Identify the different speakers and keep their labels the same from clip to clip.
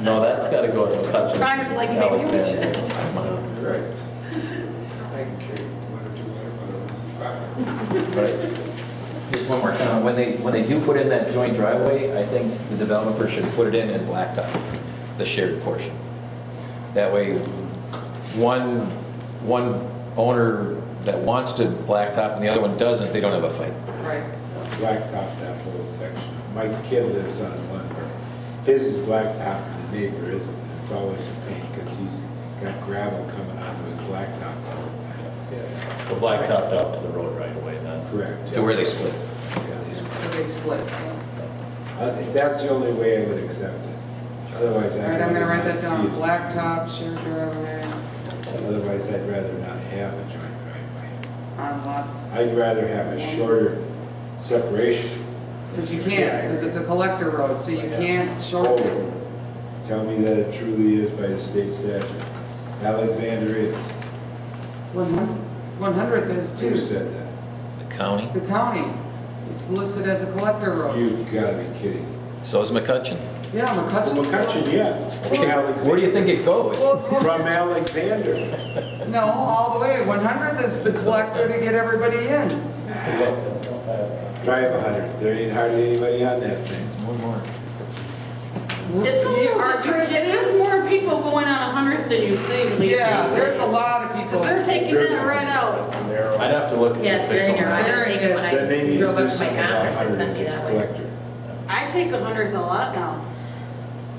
Speaker 1: No, that's gotta go to Hutchin.
Speaker 2: Brian's like, maybe we should.
Speaker 1: Alexander.
Speaker 3: Right. I can carry one or two, whatever.
Speaker 1: Right. Just one more comment, when they, when they do put in that joint driveway, I think the developer should put it in in blacktop, the shared portion. That way, one, one owner that wants to blacktop and the other one doesn't, they don't have a fight.
Speaker 2: Right.
Speaker 4: blacktop that whole section. My kid lives on one where his is blacktop and the neighbor isn't. It's always a pain because he's got gravel coming onto his blacktop. all the time.
Speaker 5: So blacktopped out to the road right away then?
Speaker 4: Correct.
Speaker 1: To where they split.
Speaker 4: Yeah.
Speaker 2: They split. yeah.
Speaker 4: I think That's the only way I would accept it. Otherwise,
Speaker 2: All
Speaker 4: I'd.
Speaker 2: right, I'm gonna
Speaker 4: rather
Speaker 2: write
Speaker 4: not
Speaker 2: that down,
Speaker 4: see it.
Speaker 2: blacktop, shared driveway,
Speaker 4: Otherwise, I'd rather not have a joint driveway.
Speaker 2: on lots.
Speaker 4: I'd rather have a shorter separation.
Speaker 2: But you can't, because it's a collector road, so you can't shorten it.
Speaker 4: Oh, Tell me that it truly is by the state statutes. Alexander is. Oh.
Speaker 2: One hundredth is
Speaker 4: Who
Speaker 2: too.
Speaker 4: said that?
Speaker 1: The county?
Speaker 2: The county, it's listed as a collector road.
Speaker 4: You've got to be kidding.
Speaker 1: So is McCutcheon.
Speaker 2: Yeah, McCutcheon.
Speaker 4: McCutcheon, yeah. From
Speaker 1: Where do you
Speaker 4: Alexander.
Speaker 1: think it goes?
Speaker 2: Well,
Speaker 4: From Alexander.
Speaker 2: No, all the way, one hundredth is the collector to get everybody in.
Speaker 4: Drive 100. There ain't hardly anybody on that thing.
Speaker 1: One more.
Speaker 6: It's a
Speaker 2: You-
Speaker 6: little
Speaker 2: are you
Speaker 6: different,
Speaker 2: kidding?
Speaker 6: there's more people going on 100th than you think. these
Speaker 2: Yeah,
Speaker 6: days.
Speaker 2: there's a lot of people.
Speaker 6: Because they're taking that right out.
Speaker 5: I'd have to look at the
Speaker 7: Yeah, it's very narrow.
Speaker 5: official.
Speaker 7: I had to take it when
Speaker 4: Then they
Speaker 7: I
Speaker 4: need to
Speaker 7: drove
Speaker 4: do
Speaker 7: up to my
Speaker 4: something about
Speaker 7: conference and
Speaker 4: 100
Speaker 7: sent me
Speaker 4: as
Speaker 7: that way.
Speaker 4: collector.
Speaker 6: I take 100s a lot now.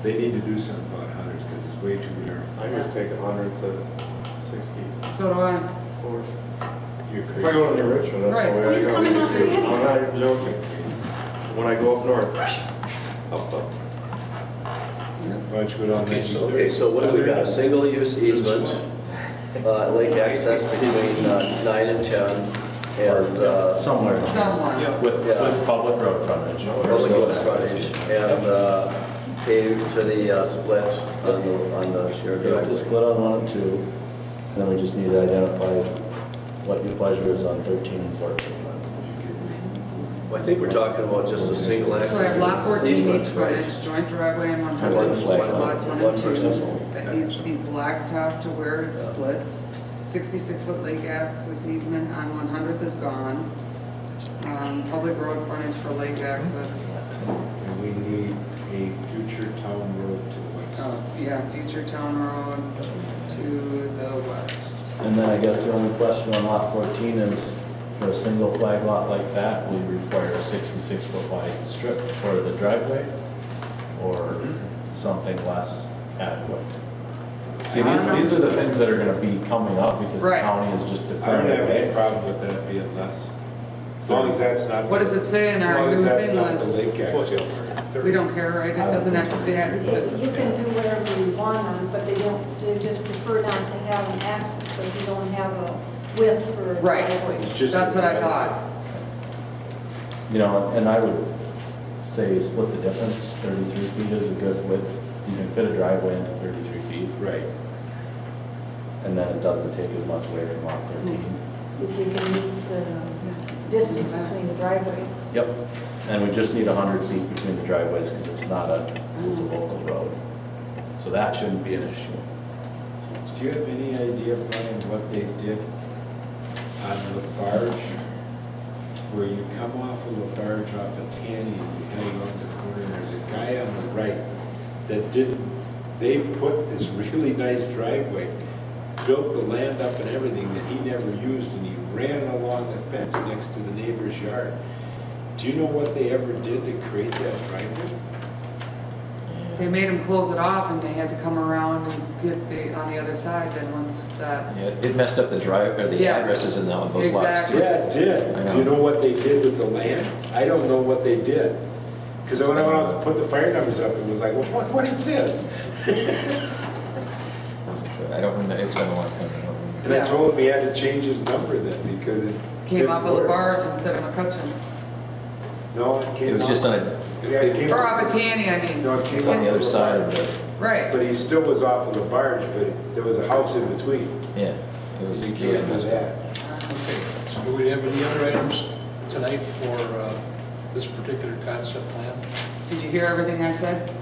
Speaker 4: They need to do something about 100 because it's way too narrow.
Speaker 5: I just take a hundred to sixty.
Speaker 2: So do I.
Speaker 4: You're crazy.
Speaker 5: If I go to New Richmond, that's the
Speaker 2: Right.
Speaker 5: way I
Speaker 6: He's
Speaker 5: go.
Speaker 6: coming up to you.
Speaker 5: I'm not even joking. When I go up north, up, up.
Speaker 4: Why don't you go down
Speaker 8: Okay, so-
Speaker 4: 1930?
Speaker 8: okay, so what have we got? A single-use easement, uh, lake access between uh, nine and 10, and uh,
Speaker 5: Somewhere.
Speaker 2: Someone.
Speaker 5: With,
Speaker 8: Yeah.
Speaker 5: with public road frontage.
Speaker 8: public road frontage, and uh, paved to the uh, split on the, on the shared
Speaker 9: You have to
Speaker 8: driveway.
Speaker 9: split on one and two, and then we just need to identify what your pleasure is on 13 and 14.
Speaker 8: Well, I think we're talking about just a single
Speaker 2: So I
Speaker 8: access.
Speaker 2: have lot fourteen
Speaker 8: easement,
Speaker 2: needs
Speaker 8: right?
Speaker 2: frontage, joint driveway and one
Speaker 8: One
Speaker 2: hundred,
Speaker 8: flag,
Speaker 2: lots one
Speaker 8: one
Speaker 2: and two.
Speaker 8: person's home.
Speaker 2: That needs to be blacktop to where it splits. Sixty-six foot lake access easement on one hundredth is gone. Um, public road frontage for lake access,
Speaker 4: And we need a future town road to the west.
Speaker 2: uh, yeah, future town road to the west.
Speaker 9: And then I guess the only question on lot 14 is, for a single flag lot like that, we require a 66-foot wide strip for the driveway, or something less adequate? See, these, these are the things that are gonna be coming up, because the
Speaker 2: Right.
Speaker 9: county is just
Speaker 4: I don't
Speaker 9: deferring.
Speaker 4: have any
Speaker 9: it.
Speaker 4: problem with that being less. As long as that's not.
Speaker 2: What does it say in
Speaker 4: As
Speaker 2: our
Speaker 4: long as
Speaker 2: new
Speaker 4: that's
Speaker 2: thing
Speaker 4: not the
Speaker 2: list?
Speaker 4: lake access.
Speaker 2: We don't care, right? It doesn't have to, they had,
Speaker 10: You can do whatever you want on, but they don't, they just prefer not to have an axis, so you don't have a width for a
Speaker 2: Right.
Speaker 10: driveway.
Speaker 4: It's just-
Speaker 2: that's what I thought.
Speaker 9: You know, and I would say split the difference, 33 feet is a good width, you can fit a driveway into 33 feet.
Speaker 4: Right.
Speaker 9: And then it doesn't take as much away from lot 13.
Speaker 10: If you can meet the distance between the driveways.
Speaker 9: Yep. And we just need 100 feet between the driveways because it's not a, it's a local road. So that shouldn't be an issue.
Speaker 4: Do you have any idea, Brian, what they did on Lafarge? Where you come off of Lafarge off of Tanny and you head off the corner, there's a guy on the right that didn't, they put this really nice driveway, built the land up and everything that he never used and he ran along the fence next to the neighbor's yard. Do you know what they ever did to create that driveway?
Speaker 2: They made them close it off and they had to come around and get the, on the other side then once that
Speaker 1: Yeah, it messed up the drive, or the
Speaker 2: Yeah.
Speaker 1: addresses in that- those lots
Speaker 2: Exactly.
Speaker 1: too.
Speaker 4: Yeah, it did. Do you know what they did with the land? I don't know what they did. Because when I went out to put the fire numbers up, it was like, "Well, what, what is this?
Speaker 1: I don't remember, it's been a long time. I don't remember.
Speaker 4: And I told him he had to change his number then because it
Speaker 2: Came
Speaker 4: didn't
Speaker 2: off of the
Speaker 4: work.
Speaker 2: barge instead of McCutcheon.
Speaker 4: No, it came
Speaker 1: It was just
Speaker 4: off-
Speaker 1: on a,
Speaker 4: Yeah, it came
Speaker 2: Or off of
Speaker 4: off.
Speaker 2: Tanny, I mean.
Speaker 4: No, it came
Speaker 1: it's on the other side of the,
Speaker 2: Right.
Speaker 4: But he still was off of the barge, but there was a house in between.
Speaker 1: yeah. It was,
Speaker 4: You
Speaker 1: it was
Speaker 4: can't do
Speaker 1: messed up.
Speaker 4: that.
Speaker 11: Okay, so do we have any other items tonight for uh, this particular concept plan?
Speaker 2: Did you hear everything I said?